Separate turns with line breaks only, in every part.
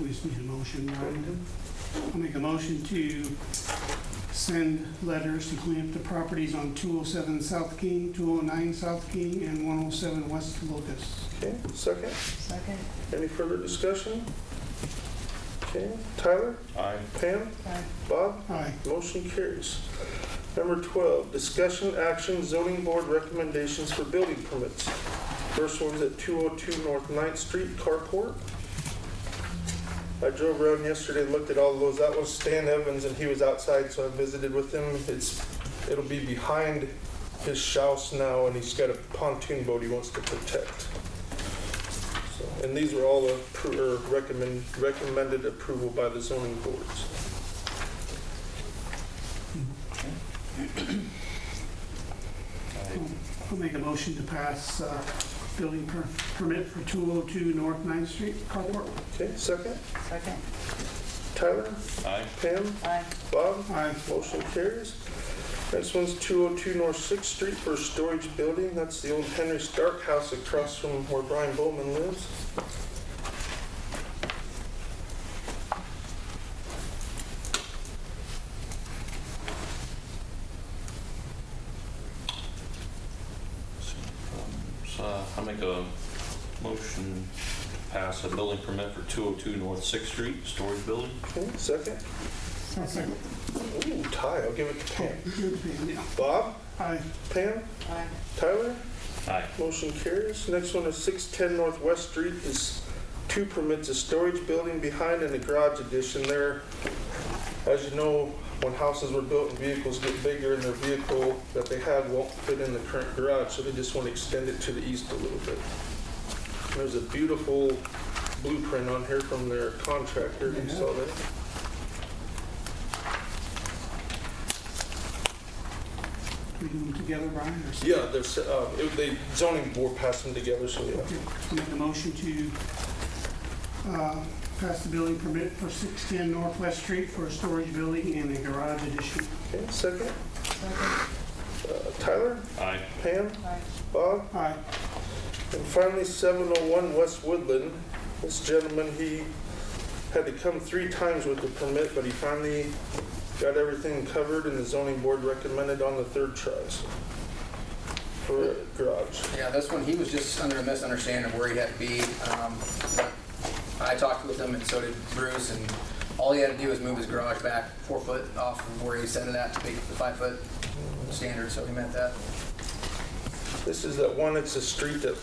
We just need a motion, right? I'll make a motion to send letters to clean up the properties on 207 South King, 209 South King, and 107 West Locust.
Okay, second.
Second.
Any further discussion? Okay, Tyler?
Aye.
Pam?
Aye.
Bob?
Aye.
Motion carries. Number 12, discussion action zoning board recommendations for building permits. First one's at 202 North 9th Street carport. I drove around yesterday, and looked at all those. That was Stan Evans and he was outside, so I visited with him. It's, it'll be behind his house now and he's got a pontoon boat he wants to protect. So, And these were all appro- or recommend, recommended approval by the zoning boards.
I'll make a motion to pass uh, building per- permit for 202 North 9th Street, carport.
Okay, second.
Second.
Tyler,
Aye.
Pam,
Aye.
Bob,
Aye.
motion carries. Next one's 202 North Sixth Street for a storage building. That's the old Henry Stark house across from where Brian Bowman lives.
So I make a motion to pass a building permit for 202 North Sixth Street, storage building.
Okay, second.
Second.
Ooh, tie, I'll give it to
Oh,
Pam.
Good, yeah.
Bob,
Aye.
Pam,
Aye.
Tyler,
Aye.
motion carries. Next one is 610 Northwest Street is two permits, a storage building behind and a garage addition there. As you know, when houses were built and vehicles get bigger and their vehicle that they have won't fit in the current garage, so they just want to extend it to the east a little bit. There's a beautiful blueprint on here from their contractor, you saw that?
We do them together, Brian, or? separate?
Yeah, there's, uh, it- they zoning board passed them together, so yeah.
I'll make a motion to uh, pass the building permit for 610 Northwest Street for a storage building and a garage addition.
Okay, second,
Second.
uh, Tyler,
Aye.
Pam,
Aye.
Bob,
Aye.
And finally, 701 West Woodland. This gentleman, he had to come three times with the permit, but he finally got everything covered and the zoning board recommended on the third try. so, For a garage.
Yeah, this one, he was just under a misunderstanding of where he had to be. Um, I talked with him and so did Bruce, and all he had to do was move his garage back four foot off of where he set it at to meet the five foot standard, so he met that.
This is that one, it's a street that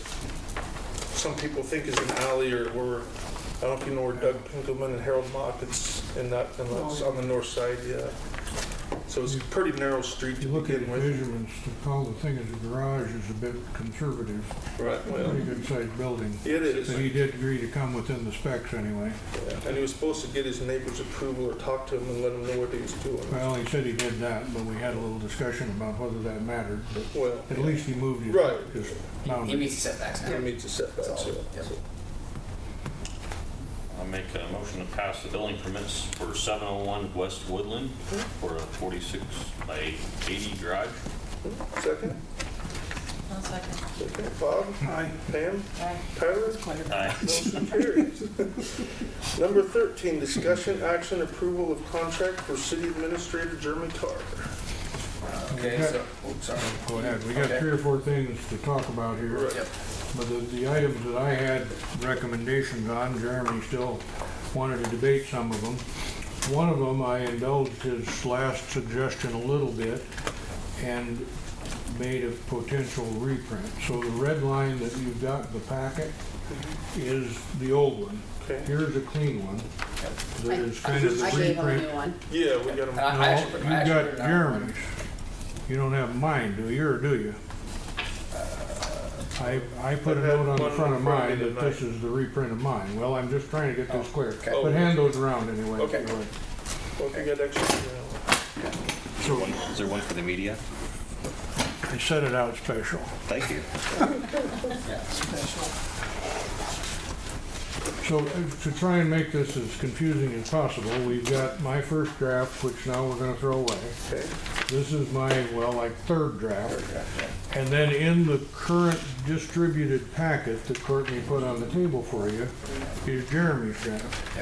some people think is an alley or where, I don't know if you know where Doug Pinkelman and Harold Mock, it's in that, in that- on the north side, yeah. So it's a pretty narrow street
If
to
you look at
begin with.
measurements, to call the thing a garage is a bit conservative.
Right, well,
Pretty good sized building.
it is.
But he did agree to come within the specs anyway.
And he was supposed to get his neighbor's approval or talk to him and let him know what he was doing.
Well, he said he did that, but we had a little discussion about whether that mattered, but
Well,
at least he moved his.
Right.
his
He- He
boundary.
meets the setbacks
he
now.
meets the setbacks, yeah.
That's all,
I make a motion to pass the building permits for 701 West Woodland for a 46 by 80 garage.
Second,
I'll second.
second, Bob,
Aye.
Pam,
Aye.
Tyler,
Aye.
motion carries. Number thirteen, discussion, action, approval of contract for city administrator Jeremy Carr.
Okay, so, oops, sorry.
Go ahead, we got
Okay.
three or four things to talk about here.
Right.
Yep.
But the, the items that I had recommendations on, Jeremy still wanted to debate some of them. One of them, I indulged his last suggestion a little bit and made a potential reprint. So the red line that you've got in the packet is the old one.
Okay,
Here's a clean one that is
I
kind of the
I gave him a new
reprint.
one.
yeah, we got him.
And I- I
No,
actually put- I
you've
actually put
got
it out.
Jeremy's. You don't have mine, do you, or do you?
Uh,
I, I put a
I had
note on the
one
front of
in front
mine
of me
that this
tonight.
is the reprint of mine. Well, I'm just trying to get this clear.
Oh, okay.
But hand those around anyway. if you
Okay.
would.
Well, if you got extra, you know.
So
Is there one for the media?
I set it out special.
Thank you.
So uh, to try and make this as confusing as possible, we've got my first draft, which now we're gonna throw away.
Okay.
This is my, well, like third draft. And then in the current distributed packet that Courtney put on the table for you is Jeremy's draft.